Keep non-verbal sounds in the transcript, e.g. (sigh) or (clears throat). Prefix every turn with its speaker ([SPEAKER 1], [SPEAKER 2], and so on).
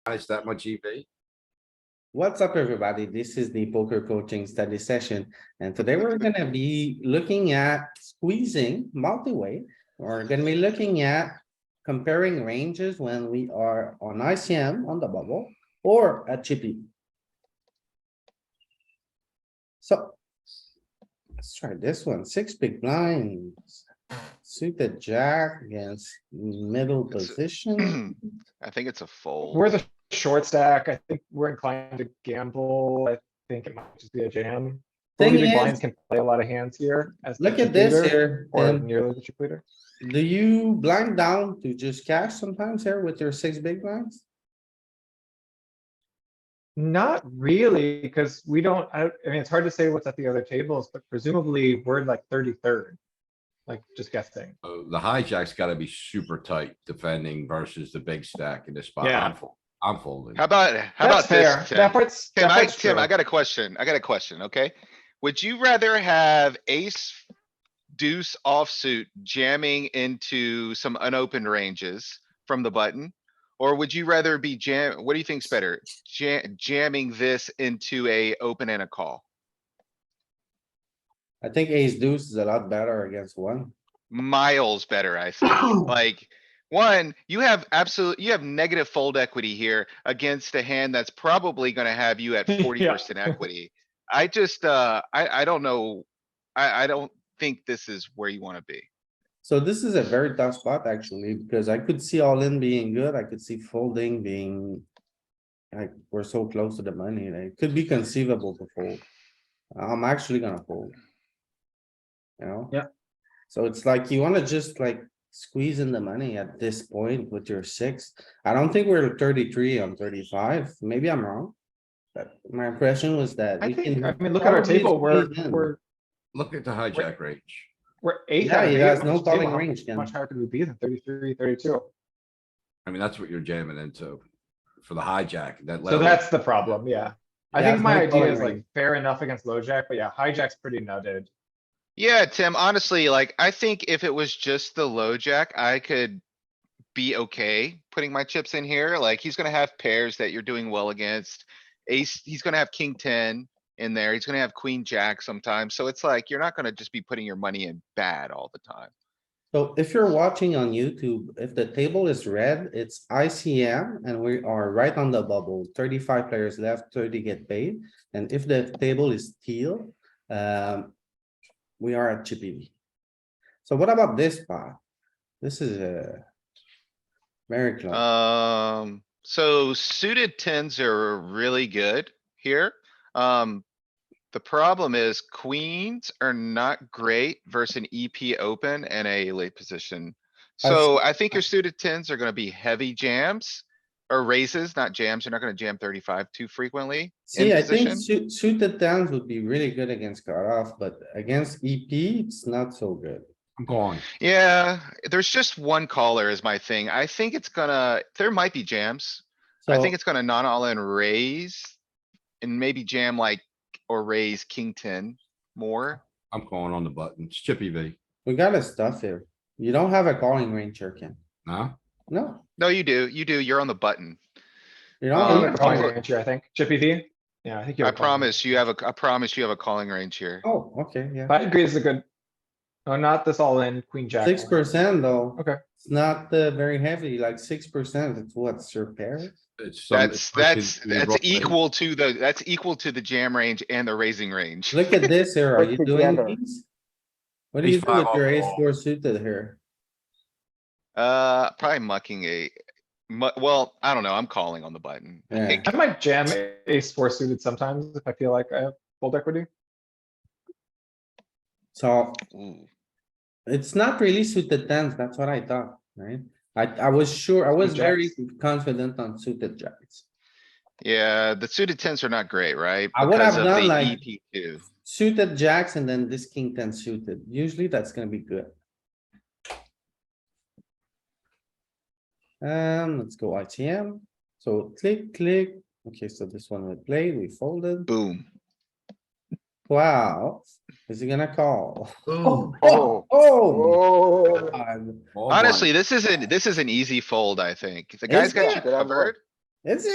[SPEAKER 1] guys that much EV.
[SPEAKER 2] What's up, everybody? This is the poker coaching study session, and today we're gonna be looking at squeezing multi-way. We're gonna be looking at comparing ranges when we are on ICM on the bubble or at chippy. So. Let's try this one. Six big blinds. Suited jack against middle
[SPEAKER 3] It's-
[SPEAKER 4] (clears throat)
[SPEAKER 2] position.
[SPEAKER 3] (clears throat) I think it's a fold.
[SPEAKER 4] We're the short stack. I think we're inclined to gamble. I think it might just be a jam.
[SPEAKER 2] Thing
[SPEAKER 4] Forty big
[SPEAKER 2] is-
[SPEAKER 4] blinds can play a lot of hands here. as the
[SPEAKER 2] Look at
[SPEAKER 4] chip
[SPEAKER 2] this
[SPEAKER 4] leader,
[SPEAKER 2] here.
[SPEAKER 4] Or
[SPEAKER 2] Tim.
[SPEAKER 4] nearly the chip leader.
[SPEAKER 2] Do you blind down to just cash sometimes here with your six big blinds?
[SPEAKER 4] Not really, because we don't, I, I mean, it's hard to say what's at the other tables, but presumably we're like thirty-third. Like, just guessing.
[SPEAKER 1] Uh, The hijack's gotta be super tight defending versus the big stack in this spot.
[SPEAKER 4] Yeah.
[SPEAKER 1] I'm fol- I'm folding.
[SPEAKER 3] How about, how about
[SPEAKER 4] That's fair.
[SPEAKER 3] this,
[SPEAKER 4] That
[SPEAKER 3] Tim?
[SPEAKER 4] part's,
[SPEAKER 3] Tim,
[SPEAKER 4] that
[SPEAKER 3] I,
[SPEAKER 4] part's
[SPEAKER 3] Tim, I
[SPEAKER 4] true.
[SPEAKER 3] got a question. I got a question, okay? Would you rather have ace deuce offsuit jamming into some unopened ranges from the button? Or would you rather be jam, what do you think's better? Jam, jamming this into a open and a call?
[SPEAKER 2] I think ace deuce is a lot better against one.
[SPEAKER 3] miles better, I think. Like, one, you have absolute, you have negative fold equity here against a hand that's probably gonna have you at
[SPEAKER 4] Yeah.
[SPEAKER 3] forty percent equity. I just, uh, I, I don't know. I, I don't think this is where you wanna be.
[SPEAKER 2] So this is a very tough spot actually, because I could see all in being good. I could see folding being. Like, we're so close to the money, like, it could be conceivable to fold. I'm actually gonna fold. You know?
[SPEAKER 4] Yeah.
[SPEAKER 2] So it's like you wanna just like squeeze in the money at this point with your six. I don't think we're thirty-three on thirty-five. Maybe I'm wrong. But my impression was that.
[SPEAKER 4] I
[SPEAKER 2] we
[SPEAKER 4] think,
[SPEAKER 2] can
[SPEAKER 4] I mean, look at our
[SPEAKER 2] probably
[SPEAKER 4] table. We're,
[SPEAKER 2] squeeze in.
[SPEAKER 4] we're,
[SPEAKER 1] Look at the hijack range.
[SPEAKER 4] we're eight.
[SPEAKER 2] Yeah,
[SPEAKER 4] out of
[SPEAKER 2] he
[SPEAKER 4] eight
[SPEAKER 2] has
[SPEAKER 4] on
[SPEAKER 2] no
[SPEAKER 4] this table.
[SPEAKER 2] calling
[SPEAKER 4] How
[SPEAKER 2] range, Ken.
[SPEAKER 4] Much higher could we be than 33, 32?
[SPEAKER 1] I mean, that's what you're jamming into for the hijack, that
[SPEAKER 4] So
[SPEAKER 1] level.
[SPEAKER 4] that's the problem, yeah. I
[SPEAKER 2] Yeah,
[SPEAKER 4] think
[SPEAKER 2] it's
[SPEAKER 4] my
[SPEAKER 2] not
[SPEAKER 4] idea
[SPEAKER 2] calling
[SPEAKER 4] is like
[SPEAKER 2] range.
[SPEAKER 4] fair enough against low jack, but yeah, hijack's pretty nutted.
[SPEAKER 3] Yeah, Tim, honestly, like, I think if it was just the low jack, I could be okay putting my chips in here. Like, he's gonna have pairs that you're doing well against. Ace, he's gonna have king ten in there. He's gonna have queen jack sometimes. So it's like, you're not gonna just be putting your money in bad all the time.
[SPEAKER 2] So if you're watching on YouTube, if the table is red, it's ICM and we are right on the bubble, thirty-five players left, thirty get paid. And if the table is teal, um, we are at chippy V. So what about this spot? This is a very
[SPEAKER 3] Uh,
[SPEAKER 2] close.
[SPEAKER 3] Um, so suited tens are really good here. Um, the problem is queens are not great versus an EP open and a late position.
[SPEAKER 2] I see.
[SPEAKER 3] So I think your suited tens are gonna be heavy jams or raises, not jams. You're not gonna jam thirty-five too frequently.
[SPEAKER 2] See, I think
[SPEAKER 3] position?
[SPEAKER 2] suit- suited tens would be really good against cutoff, but against EP, it's not so good.
[SPEAKER 1] I'm going.
[SPEAKER 3] Yeah, there's just one caller is my thing. I think it's gonna, there might be jams. I
[SPEAKER 2] So-
[SPEAKER 3] think it's gonna non all in raise and maybe jam like, or raise king ten more.
[SPEAKER 1] I'm calling on the button. It's chippy V.
[SPEAKER 2] We gotta stuff here. You don't have a calling range, here, Ken.
[SPEAKER 1] Huh?
[SPEAKER 2] No,
[SPEAKER 3] No, you do, you do, you're on the button.
[SPEAKER 2] you
[SPEAKER 3] Uh,
[SPEAKER 4] You
[SPEAKER 2] don't.
[SPEAKER 4] have
[SPEAKER 2] have
[SPEAKER 4] a
[SPEAKER 2] a
[SPEAKER 3] I'm
[SPEAKER 4] calling
[SPEAKER 3] pro-
[SPEAKER 4] range here, I think. Chippy V? Yeah, I think you
[SPEAKER 3] I
[SPEAKER 4] have a calling
[SPEAKER 3] promise you have a, I promise you have a calling range here.
[SPEAKER 2] Oh, okay, yeah.
[SPEAKER 4] range. I agree is a good. Oh, not this all in, queen jack.
[SPEAKER 2] Six
[SPEAKER 4] only.
[SPEAKER 2] percent though.
[SPEAKER 4] Okay.
[SPEAKER 2] It's not uh, very heavy, like six percent, it's what's your pair?
[SPEAKER 1] It's some-
[SPEAKER 3] That's,
[SPEAKER 1] it's like
[SPEAKER 3] that's,
[SPEAKER 1] in the
[SPEAKER 3] that's
[SPEAKER 1] wrong range.
[SPEAKER 3] equal to the, that's equal to the jam range and the raising range.
[SPEAKER 2] Look at this here, are
[SPEAKER 4] Put
[SPEAKER 2] you doing
[SPEAKER 4] together.
[SPEAKER 2] these? What do you
[SPEAKER 1] Ace
[SPEAKER 2] do with
[SPEAKER 1] five
[SPEAKER 2] your
[SPEAKER 1] off
[SPEAKER 2] ace
[SPEAKER 1] call.
[SPEAKER 2] four suited here?
[SPEAKER 3] Uh, probably mucking a, mu- well, I don't know, I'm calling on the button. I
[SPEAKER 2] Yeah.
[SPEAKER 3] think-
[SPEAKER 4] I might jam ace four suited sometimes if I feel like I have fold equity.
[SPEAKER 2] So
[SPEAKER 3] ooh.
[SPEAKER 2] it's not really suited tens, that's what I thought, right? I, I was sure, I was very confident on suited jacks.
[SPEAKER 3] Yeah, the suited tens are not great, right?
[SPEAKER 2] I would
[SPEAKER 3] Because
[SPEAKER 2] have
[SPEAKER 3] of
[SPEAKER 2] done
[SPEAKER 3] the E
[SPEAKER 2] like-
[SPEAKER 3] EP two.
[SPEAKER 2] Suited jacks and then this king ten suited, usually that's gonna be good. Um, let's go ITM, so click, click, okay, so this one we played, we folded,
[SPEAKER 3] Boom.
[SPEAKER 2] wow, is he gonna call?
[SPEAKER 1] Boom.
[SPEAKER 2] (laughs) Oh, oh,
[SPEAKER 4] Oh.
[SPEAKER 1] Ball
[SPEAKER 2] God.
[SPEAKER 1] blind.
[SPEAKER 3] Honestly, this isn't, this is an easy fold, I think. The guy's
[SPEAKER 2] Is
[SPEAKER 3] got
[SPEAKER 2] it?
[SPEAKER 3] you covered.
[SPEAKER 2] it's